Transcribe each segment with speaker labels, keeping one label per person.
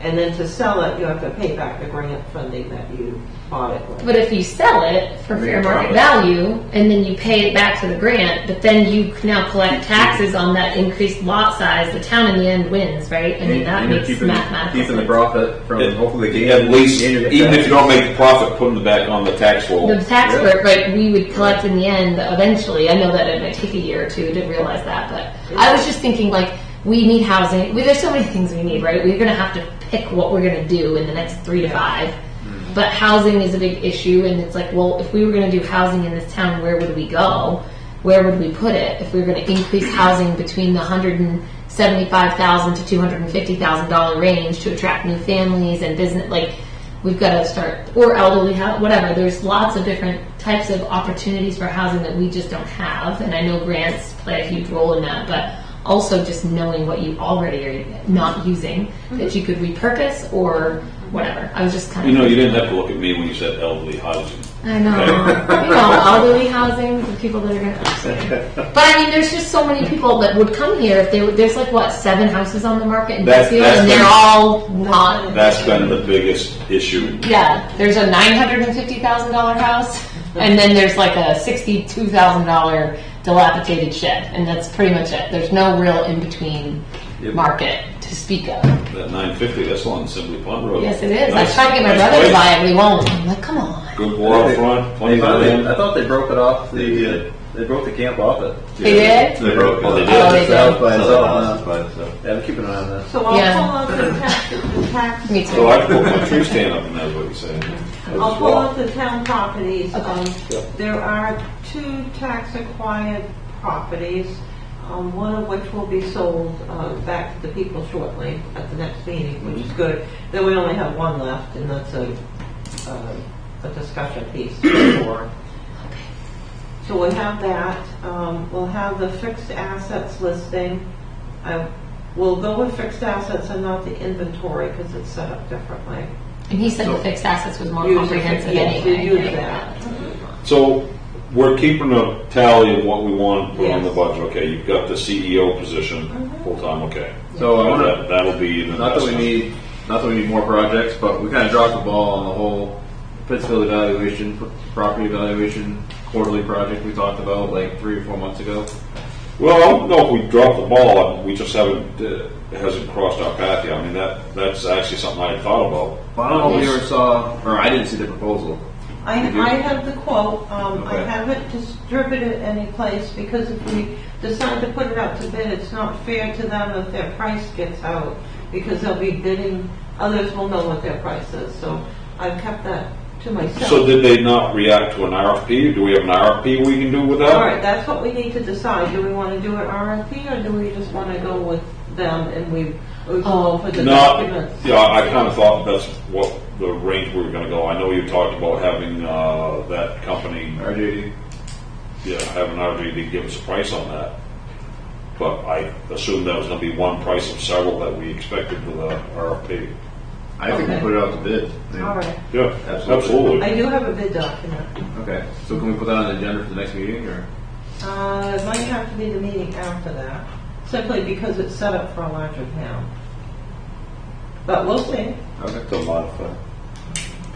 Speaker 1: And then to sell it, you have to pay back the grant funding that you bought it with.
Speaker 2: But if you sell it for fair
Speaker 3: Make
Speaker 2: market
Speaker 3: profit.
Speaker 2: value and then you pay it back to the grant, but then you now collect taxes on that increased lot size, the town in the end wins, right? I mean, that
Speaker 3: And you're
Speaker 2: makes
Speaker 3: keeping-
Speaker 2: mathematical
Speaker 3: Keeping the
Speaker 2: sense.
Speaker 3: profit from
Speaker 4: At-
Speaker 3: hopefully the gain.
Speaker 4: At least,
Speaker 3: gain of the
Speaker 4: even if
Speaker 3: tax.
Speaker 4: you don't make the profit, putting it back on the tax roll.
Speaker 2: The tax
Speaker 3: Yeah.
Speaker 2: work, right, we would collect in the end eventually. I know that it might take a year or two. I didn't realize that, but I was just thinking like, we need housing. We, there's so many things we need, right? We're going to have to pick what we're going to do in the next three to five. But housing is a big issue, and it's like, well, if we were going to do housing in this town, where would we go? Where would we put it if we were going to increase housing between the 175,000 to 250,000 dollar range to attract new families and business? Like, we've got to start or elderly housing, whatever. There's lots of different types of opportunities for housing that we just don't have, and I know grants play a huge role in that, but also just knowing what you already are not using that you could repurpose or whatever. I was just kind
Speaker 4: You
Speaker 2: of
Speaker 4: know, you didn't have to look at me when you said elderly housing.
Speaker 2: I know. you know, elderly housing, the people that are going to upstairs. But I mean, there's just so many people that would come here if they would. There's like what seven houses on the market in
Speaker 4: That's-
Speaker 2: Pittsfield,
Speaker 4: that's
Speaker 2: and they're
Speaker 4: been-
Speaker 2: all not.
Speaker 4: That's been the biggest issue.
Speaker 2: Yeah, there's a nine hundred and fifty thousand dollar house, and then there's like a sixty-two thousand dollar dilapidated shed, and that's pretty much it. There's no real in between
Speaker 3: Yep.
Speaker 2: market to speak of.
Speaker 4: That nine fifty, that's on Assembly Pond Road.
Speaker 2: Yes, it is. I
Speaker 4: Nice-
Speaker 2: tried to get my
Speaker 4: nice
Speaker 2: brother to
Speaker 4: place.
Speaker 2: buy it, but he won't. I'm like, come on.
Speaker 4: Good
Speaker 3: They-
Speaker 4: waterfront,
Speaker 3: They
Speaker 4: plenty of
Speaker 3: finally, I
Speaker 4: land.
Speaker 3: thought they broke it off the.
Speaker 4: They did.
Speaker 3: They broke the camp off it.
Speaker 2: They did?
Speaker 4: They broke, well, they
Speaker 3: It's
Speaker 2: Oh,
Speaker 4: did.
Speaker 2: they
Speaker 3: it's out
Speaker 2: did.
Speaker 3: by
Speaker 5: Other
Speaker 3: itself
Speaker 5: houses
Speaker 3: now.
Speaker 5: by itself.
Speaker 3: Yeah, I'm keeping an eye on that.
Speaker 1: So I'll
Speaker 2: Yeah.
Speaker 1: pull up the tax, the tax.
Speaker 2: Me too.
Speaker 4: So I put my tree stand up, and that's what he's saying.
Speaker 1: I'll pull up the town properties.
Speaker 2: Okay.
Speaker 1: Um, There are two tax-acquired properties, um, one of which will be sold uh, back to the people shortly at the next meeting, which is good. Then we only have one left, and that's a, uh, a discussion piece for. So we'll have that, Um, we'll have the fixed assets listing. I will go with fixed assets and not the inventory, because it's set up differently.
Speaker 2: And he said the fixed assets was more
Speaker 1: Use it,
Speaker 2: comprehensive
Speaker 1: yes,
Speaker 2: anyway.
Speaker 1: you use
Speaker 2: right?
Speaker 1: that.
Speaker 4: So we're keeping a tally of what we want to put on the
Speaker 1: Yes.
Speaker 4: budget. Okay, you've got the CEO position,
Speaker 2: Mm-hmm.
Speaker 4: full-time, okay.
Speaker 3: So I
Speaker 4: Well,
Speaker 3: wanna-
Speaker 4: that- That'll be an
Speaker 3: Not that we
Speaker 4: investment.
Speaker 3: need, not that we need more projects, but we kind of dropped the ball on the whole Pittsfield evaluation, property evaluation, quarterly project we talked about like three or four months ago.
Speaker 4: Well, I don't know if we dropped the ball, we just haven't, uh, it hasn't crossed our path yet. I mean, that, that's actually something I had thought about.
Speaker 3: But I don't know if we ever saw, or I didn't see the proposal.
Speaker 1: I,
Speaker 3: You do?
Speaker 1: I have the quote, um, I
Speaker 3: Okay.
Speaker 1: haven't distributed it anyplace, because if we decide to put it out to bid, it's not fair to them if their price gets out, because they'll be bidding, others will know what their price is, so I've kept that to
Speaker 4: So
Speaker 1: myself.
Speaker 4: did they not react to an RFP? Do we have an RFP we can do with
Speaker 1: All right,
Speaker 4: that?
Speaker 1: that's what we need to decide, do we wanna do an RFP, or do we just wanna go with them and we, we go for the
Speaker 4: Not,
Speaker 1: documents?
Speaker 4: yeah, I kind of thought that's what the range we were gonna go. I know you talked about having, uh, that company,
Speaker 3: RJD.
Speaker 4: yeah, having RGD give us a price on that. But I assumed that was gonna be one price of several that we expected with a RFP.
Speaker 3: I think we
Speaker 1: Okay.
Speaker 3: put it out to bid. I mean,
Speaker 1: All right,
Speaker 4: Yeah,
Speaker 3: Absolutely.
Speaker 4: absolutely.
Speaker 1: I do have a bid document,
Speaker 3: Okay, so can we put that on the agenda for the next meeting or?
Speaker 1: uh, it might have to be the meeting after that, simply because it's set up for a larger town. But we'll see.
Speaker 3: Okay.
Speaker 4: To modify.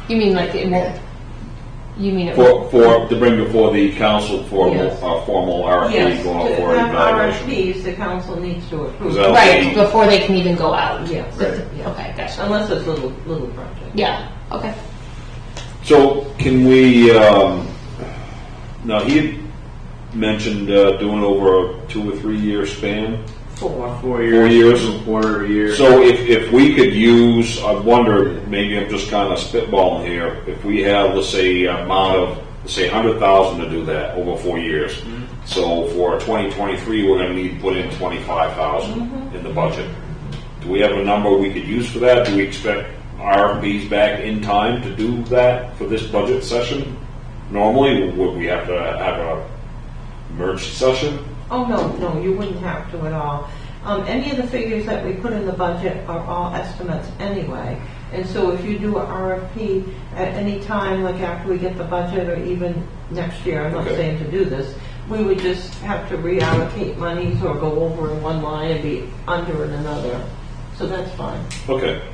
Speaker 2: You mean like it won't? You mean it won't?
Speaker 4: For, for, to bring before the council for a
Speaker 1: Yes.
Speaker 4: formal RFP
Speaker 1: Yes,
Speaker 4: going out
Speaker 1: to
Speaker 4: for
Speaker 1: have
Speaker 4: evaluation.
Speaker 1: RFPs, the council needs to approve,
Speaker 4: Is that-
Speaker 2: Right before they can even go out.
Speaker 1: Yes.
Speaker 2: That's- Okay, gotcha.
Speaker 1: unless it's little, little project.
Speaker 2: Yeah. Okay.
Speaker 4: So can we, um, now he had mentioned uh, doing over a two or three year span.
Speaker 1: Four.
Speaker 3: Four
Speaker 4: years.
Speaker 3: Quarter of a year.
Speaker 4: So if, if we could use, I wonder, maybe I'm just kind of spitballing here, if we have, let's say, an amount of, let's say, hundred thousand to do that over four years. So for twenty twenty-three, we're gonna need to put in twenty-five thousand in the budget. Do we have a number we could use for that? Do we expect RFPs back in time to do that for this budget session? Normally, would we have to have a merge session?
Speaker 1: Oh, no, no, you wouldn't have to at all. Um, any of the figures that we put in the budget are all estimates anyway. And so if you do a RFP at any time, like after we get the budget or even next year, I'm not
Speaker 4: Okay.
Speaker 1: saying to do this, we would just have to reallocate monies or go over in one line and be under in another. So that's fine.
Speaker 4: Okay.